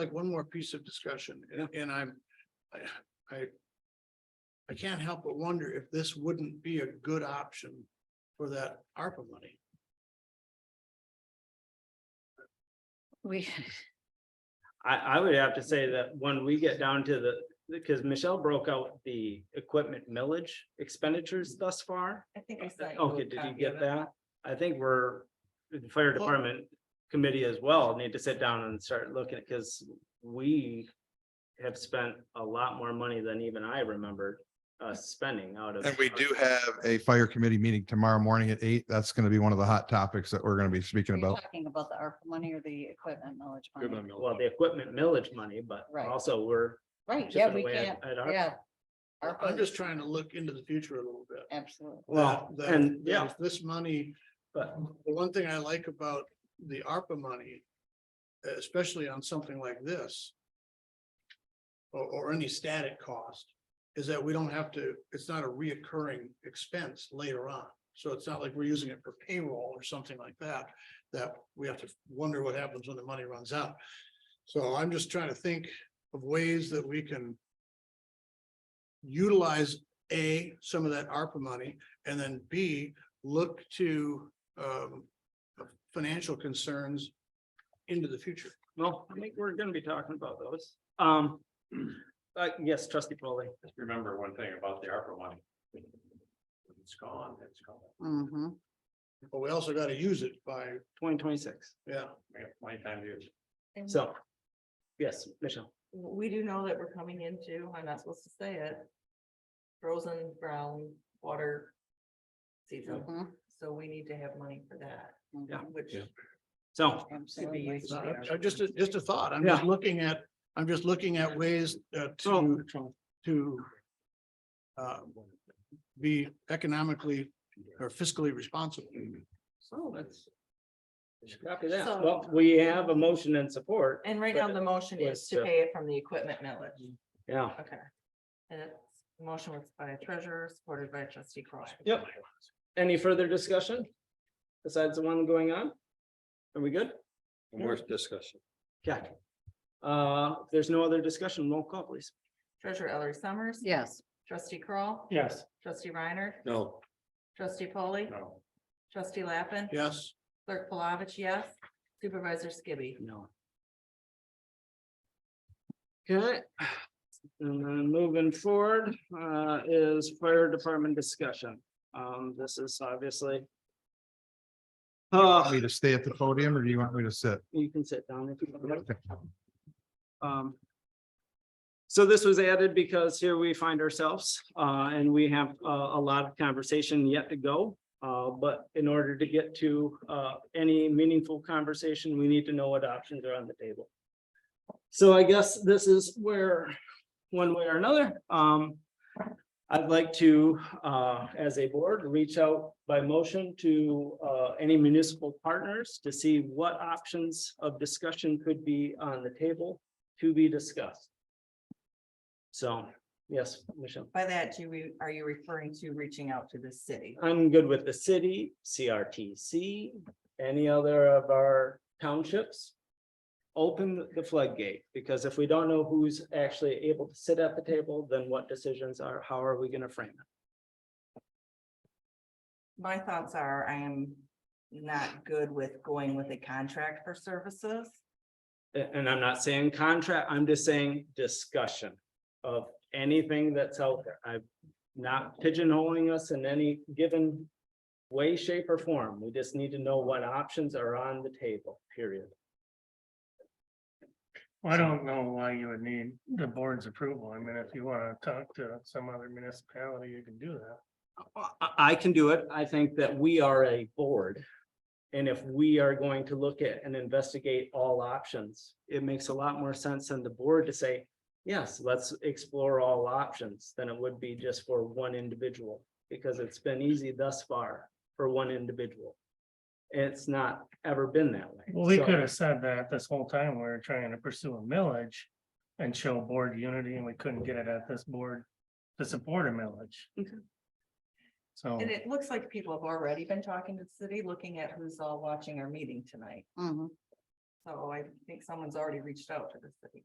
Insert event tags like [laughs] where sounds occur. like one more piece of discussion, and- and I'm, I, I. I can't help but wonder if this wouldn't be a good option for that ARPA money. We, [laughs] I, I would have to say that when we get down to the, because Michelle broke out the equipment millage expenditures thus far. I think I sent. you a Okay, did you copy of get it. that? I think we're, the fire department committee as well need to sit down and start looking, because we have spent a lot more money than even I remembered uh spending out of. And we do have a fire committee meeting tomorrow morning at eight. That's going to be one of the hot topics that we're going to be speaking are you about. talking about the ARPA money or the equipment knowledge money? Well, the equipment millage money, but Right. also we're. Right, yeah, chipping we away at- can't, at our- yeah. I'm ARPA, just trying to look into the future a little bit. absolutely. Well, That- that- and that yeah, if This money but The one thing I like about the ARPA money, especially on something like this. Or, or any static cost, is that we don't have to, it's not a reoccurring expense later on. So it's not like we're using it for payroll or something like that, that we have to wonder what happens when the money runs out. So I'm just trying to think of ways that we can. Utilize A, some of that ARPA money, and then B, look to um, financial concerns into the future. Well, I think we're gonna be talking about those. Um, [clears throat] uh, yes, trustee Polly. Just remember one thing about the ARPA money. It's gone, it's gone. Mm-hmm. But we also got to use it by, twenty twenty-six. yeah, We have plenty of time to use. it. And So, yes, Michelle, We do know that we're coming into, I'm not supposed to say it, frozen brown water season, so we need to have money for that, Mm-hmm. Yeah. which Yeah. so could be used. it's not- I- I just, just a thought. I'm just Yeah. looking at, I'm just looking at ways uh, to, to uh, be economically or fiscally responsible. so that's. Copy that. So- Well, we have a motion and support. And right now, the motion Was is to to- pay it from the equipment millage, Yeah, okay. And it's, the motion was by treasurer, supported by trustee Croy. Yep. any further discussion? Besides the one going on? Are we good? More discussion. Yeah. Uh, if there's no other discussion, roll call please. Treasurer Ellery Summers. Yes, Trustee Kroll, Yes. Trustee Reiner. No. Trustee polley No. Trustee Lappin. Yes, Clerk Palovich, yes. Supervisor Skibby. No. Okay. And then moving forward, uh, is fire department discussion. Um, this is obviously. Want Uh, me to stay at the podium or do you want me to sit? you can sit down if you want. Okay. Um. So this was added because here we find ourselves, uh, and we have a, a lot of conversation yet to go. Uh, but in order to get to, uh, any meaningful conversation, we need to know what options are on the table. So I guess this is where, one way or another, um. I'd like to, uh, as a board, reach out by motion to, uh, any municipal partners to see what options of discussion could be on the table to be discussed. So, yes, Michelle, By that, do we, are you referring to reaching out to the city? I'm good with the city, CRTC, any other of our townships. Open the floodgate, because if we don't know who's actually able to sit at the table, then what decisions are, how are we gonna frame it? My thoughts are, I am not good with going with a contract for services. A- And I'm not saying contract, I'm just saying discussion of anything that's out there. I'm not pigeonholing us in any given way, shape or form. We just need to know what options are on the table, period. Well, I don't know why you would need the board's approval. I mean, if you wanna talk to some other municipality, you can do that. I, I can do it. I think that we are a board. And if we are going to look at and investigate all options, it makes a lot more sense than the board to say, yes, let's explore all options than it would be just for one individual, because it's been easy thus far for one individual. It's not ever been that way. Well, we So- could have said that this whole time we were trying to pursue a millage and show board unity and we couldn't get it at this board to support a millage. Okay. So, And it looks like people have already been talking to the city, looking at who's all watching our meeting tonight. hmm So I think someone's already reached out to the city.